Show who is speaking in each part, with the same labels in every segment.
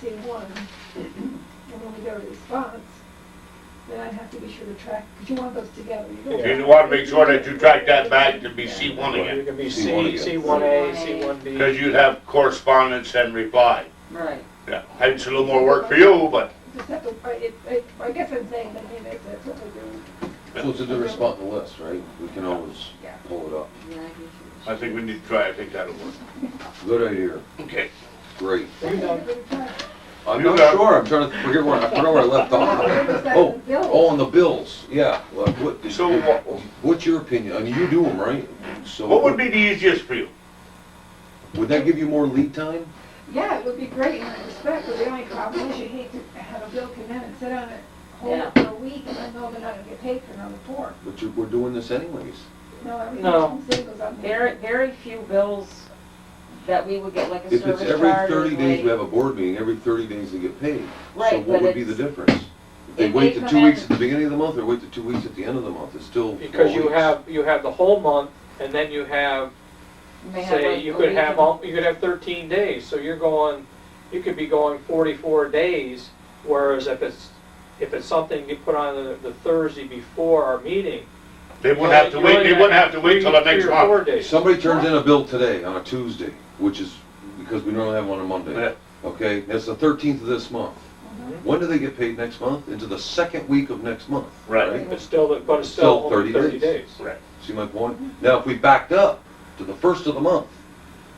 Speaker 1: seeing one, and when we get a response, then I'd have to be sure to track, because you want those together. You don't
Speaker 2: You want to make sure that you track that back to be C one
Speaker 3: You
Speaker 2: again,
Speaker 3: can be
Speaker 4: C1
Speaker 3: C,
Speaker 4: again.
Speaker 3: C one A, C one B.
Speaker 2: because you'd have correspondence and reply.
Speaker 5: Right.
Speaker 2: Yeah, it's a little more work for you, but
Speaker 1: Just have to, I, it, it- I guess I'm saying, I mean, that's, that's what we do.
Speaker 4: So it's a different spot in the list, right? We can always
Speaker 1: Yeah.
Speaker 4: pull it up.
Speaker 5: Yeah, I guess you
Speaker 2: I think we need to try, I think that'll work.
Speaker 4: Good idea,
Speaker 2: Okay.
Speaker 4: great.
Speaker 3: You know,
Speaker 4: I'm
Speaker 2: You
Speaker 4: not
Speaker 2: got-
Speaker 4: sure, I'm trying to forget where, I forgot where I left off. Oh, oh, on the bills, yeah. Well, what-
Speaker 2: So what,
Speaker 4: What's your opinion? I mean, you do them, right? So
Speaker 2: what would be the easiest for you?
Speaker 4: Would that give you more lead time?
Speaker 1: Yeah, it would be great in that respect, but the only problem is you hate to have a bill come in and sit on it
Speaker 5: Yeah.
Speaker 1: hold for a week, and I know they're not gonna get paid for another four.
Speaker 4: But you, we're doing this anyways.
Speaker 1: No, everything
Speaker 3: No.
Speaker 1: comes in, goes on.
Speaker 5: Very, very few bills that we would get like a
Speaker 4: If
Speaker 5: service
Speaker 4: it's
Speaker 5: charge.
Speaker 4: every thirty
Speaker 5: or
Speaker 4: days, we have
Speaker 5: like-
Speaker 4: a board meeting, every thirty days they get paid. So
Speaker 5: Right,
Speaker 4: what
Speaker 5: but
Speaker 4: would be the
Speaker 5: it's-
Speaker 4: difference? If They
Speaker 5: if
Speaker 4: wait
Speaker 5: they
Speaker 4: the
Speaker 5: come
Speaker 4: two weeks
Speaker 5: in-
Speaker 4: at the beginning of the month, or wait the two weeks at the end of the month, it's still four
Speaker 3: Because you
Speaker 4: weeks.
Speaker 3: have, you have the whole month, and then you have,
Speaker 5: you may have,
Speaker 3: say,
Speaker 5: like,
Speaker 3: you
Speaker 5: a
Speaker 3: could
Speaker 5: week
Speaker 3: have,
Speaker 5: and-
Speaker 3: all- you could have thirteen days, so you're going, you could be going forty-four days, whereas if it's, if it's something you put on the, the Thursday before our meeting.
Speaker 2: They wouldn't have
Speaker 3: you're
Speaker 2: to
Speaker 3: only
Speaker 2: wait, they
Speaker 3: gonna
Speaker 2: wouldn't have to wait till the
Speaker 3: three-
Speaker 2: next
Speaker 3: three or four
Speaker 2: month.
Speaker 3: days.
Speaker 4: Somebody turns in a bill today on a Tuesday, which is, because we normally have one on a Monday.
Speaker 2: Yeah.
Speaker 4: Okay, that's the thirteenth of this month. When do they get paid next month? Into the second week of next month.
Speaker 2: Right.
Speaker 3: It's still, the- but it's
Speaker 4: Still
Speaker 3: still only
Speaker 4: 30
Speaker 3: thirty days.
Speaker 4: days. See my point? Now, if we backed up to the first of the month,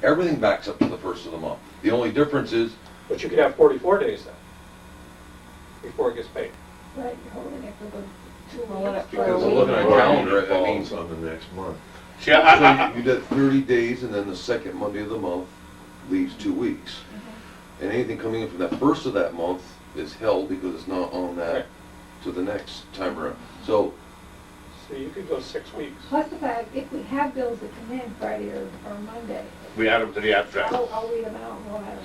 Speaker 4: everything backs up to the first of the month. The only difference is,
Speaker 3: But you could have forty-four days then, before it gets paid.
Speaker 1: Right, you're holding it for the two
Speaker 5: Hold it
Speaker 1: weeks.
Speaker 5: for
Speaker 1: for a
Speaker 4: because I'm
Speaker 5: week.
Speaker 4: looking at a
Speaker 5: Right.
Speaker 4: calendar, it means.
Speaker 6: Falls on the next month.
Speaker 2: See, I, I,
Speaker 4: So
Speaker 2: I-
Speaker 4: you did thirty days, and then the second Monday of the month leaves two weeks. And anything coming in from that first of that month is held because it's not on
Speaker 3: Right.
Speaker 4: that to the next time around. So,
Speaker 3: So you could go six weeks.
Speaker 1: Plus the fact, if we have bills that come in Friday or, or Monday,
Speaker 2: we add them to the abstract.
Speaker 1: I'll, I'll read them out and we'll have them.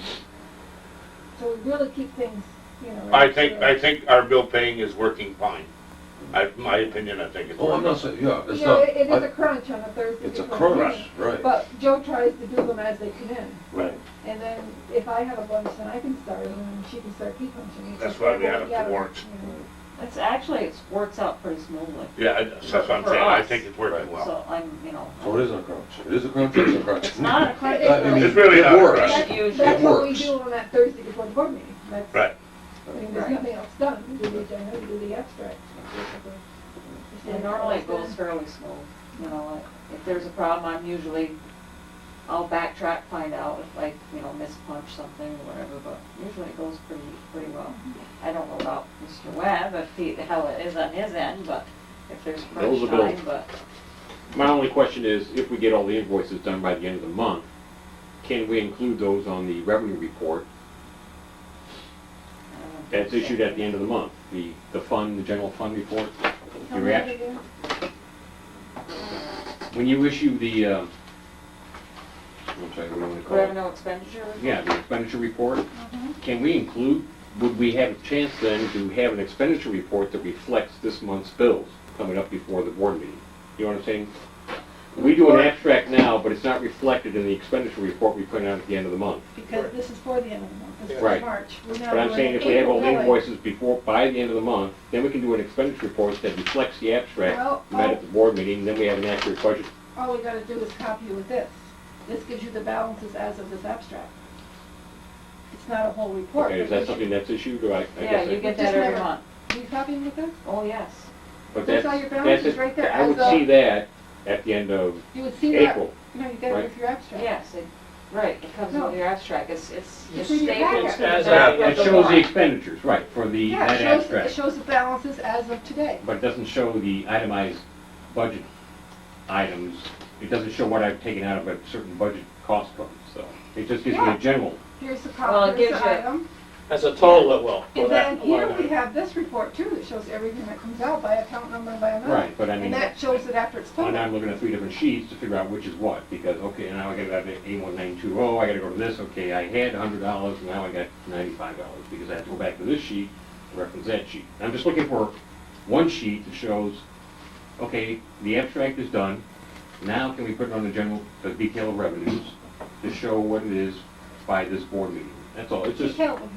Speaker 1: So we really keep things, you know.
Speaker 2: I think,
Speaker 1: right
Speaker 2: I think our bill paying is working fine. I, my opinion, I think it's
Speaker 4: oh, I'm
Speaker 2: working.
Speaker 4: not saying, yeah,
Speaker 1: to-
Speaker 4: it's
Speaker 1: You know,
Speaker 4: not,
Speaker 1: it it is a
Speaker 4: I-
Speaker 1: crunch on a Thursday.
Speaker 4: it's a
Speaker 1: before the
Speaker 4: crunch,
Speaker 1: meeting.
Speaker 4: right?
Speaker 1: But Joe tries to do them as they come in,
Speaker 2: Right.
Speaker 1: and then if I have a bunch, then I can start them, and she can start keep punching.
Speaker 2: That's why we add up
Speaker 1: Yeah,
Speaker 2: the warrants.
Speaker 1: you know.
Speaker 5: It's actually, it works out pretty smoothly,
Speaker 2: Yeah, I- that's what I'm
Speaker 5: For
Speaker 2: saying, I
Speaker 5: us.
Speaker 2: think it's working well.
Speaker 5: so I'm, you know.
Speaker 4: So Oh, it isn't a crunch, it is a crunch, it is a crunch.
Speaker 5: It's not a
Speaker 4: I- I mean,
Speaker 5: credit.
Speaker 2: It's really
Speaker 4: it
Speaker 2: not a
Speaker 4: works.
Speaker 2: crunch.
Speaker 5: It's usually-
Speaker 1: That's what we
Speaker 4: works.
Speaker 1: do on that Thursday before the board meeting. That's-
Speaker 2: Right.
Speaker 1: I mean, there's
Speaker 5: Right.
Speaker 1: nothing else done. We do the agenda, we do the abstract.
Speaker 5: And normally it goes fairly smooth, you know, like, if there's a problem, I'm usually, I'll backtrack, find out if I, you know, mispunch something or whatever, but usually it goes pretty, pretty well.
Speaker 1: Mm-hmm.
Speaker 5: I don't know about Mr. Webb, if he, how it is on his end, but if there's crunch
Speaker 7: Those are built.
Speaker 5: time, but,
Speaker 7: My only question is, if we get all the invoices done by the end of the month, can we include those on the revenue report
Speaker 5: I don't know.
Speaker 7: that's issued at the end of the month? The, the fund, the general fund report?
Speaker 1: How
Speaker 7: The
Speaker 1: many
Speaker 7: reaction,
Speaker 1: do you
Speaker 7: when you issue the, um, I'm sorry, what do you want to call it?
Speaker 5: Revenue expenditure?
Speaker 7: Yeah, the expenditure report, can we include, would we have a chance then to have an expenditure report that reflects this month's bills coming up before the board meeting? You know what I'm saying? We do an abstract now, but it's not reflected in the expenditure report we put out at the end of the month.
Speaker 1: Because this is for the end of the month, this is
Speaker 7: Right.
Speaker 1: March. We're not
Speaker 7: But I'm
Speaker 1: doing
Speaker 7: saying if we have all the
Speaker 1: April, May.
Speaker 7: invoices before, by the end of the month, then we can do an expenditure report that reflects the
Speaker 1: Well, oh.
Speaker 7: abstract met at the board meeting, then we have an accurate budget.
Speaker 1: All we gotta do is copy you with this. This gives you the balances as of this abstract. It's not a whole report.
Speaker 7: Okay, is
Speaker 1: but
Speaker 7: that something that's issued, or I, I
Speaker 5: Yeah,
Speaker 7: guess
Speaker 5: you
Speaker 7: I...
Speaker 1: Just
Speaker 5: get that every
Speaker 1: never-
Speaker 5: month.
Speaker 1: Can you copy me with this?
Speaker 5: Oh, yes.
Speaker 7: But
Speaker 1: There's
Speaker 7: that's,
Speaker 1: all your
Speaker 7: that's,
Speaker 1: balances right
Speaker 7: it.
Speaker 1: there
Speaker 7: I would
Speaker 1: as of-
Speaker 7: see that at the end of
Speaker 1: You would see that,
Speaker 7: April.
Speaker 1: no, you got it with your abstract.
Speaker 5: Yes, it, right, it comes
Speaker 1: No.
Speaker 5: with your abstract, it's, it's
Speaker 1: It's
Speaker 5: it's
Speaker 1: in your
Speaker 5: stapled.
Speaker 1: packet.
Speaker 5: to the
Speaker 3: As
Speaker 5: back
Speaker 3: of-
Speaker 5: of
Speaker 7: It shows the
Speaker 5: warrant.
Speaker 7: expenditures, right, for the,
Speaker 1: Yeah,
Speaker 7: that
Speaker 1: it shows, it
Speaker 7: abstract,
Speaker 1: shows the balances as of today.
Speaker 7: but it doesn't show the itemized budget items. It doesn't show what I've taken out of a certain budget cost fund, so it just gives me
Speaker 1: Yeah.
Speaker 7: a general.
Speaker 1: Here's the
Speaker 5: Well,
Speaker 1: column,
Speaker 5: it
Speaker 1: here's
Speaker 5: gives
Speaker 1: the
Speaker 5: you-
Speaker 1: item.
Speaker 3: As a total, it will. for
Speaker 1: And then
Speaker 3: that
Speaker 1: here
Speaker 3: line
Speaker 1: we
Speaker 3: item.
Speaker 1: have this report too, that shows everything that comes out by account number and by amount.
Speaker 7: Right, but I mean,
Speaker 1: And that shows it after it's
Speaker 7: when
Speaker 1: funded.
Speaker 7: I'm looking at three different sheets to figure out which is what, because, okay, now I gotta have A one nine two oh, I gotta go to this, okay, I had a hundred dollars, now I got ninety-five dollars, because I have to go back to this sheet to reference that sheet. I'm just looking for one sheet that shows, okay, the abstract is done, now can we put it on the general, the detail of revenues to show what it is by this board meeting? That's all, it's just.
Speaker 1: Detail of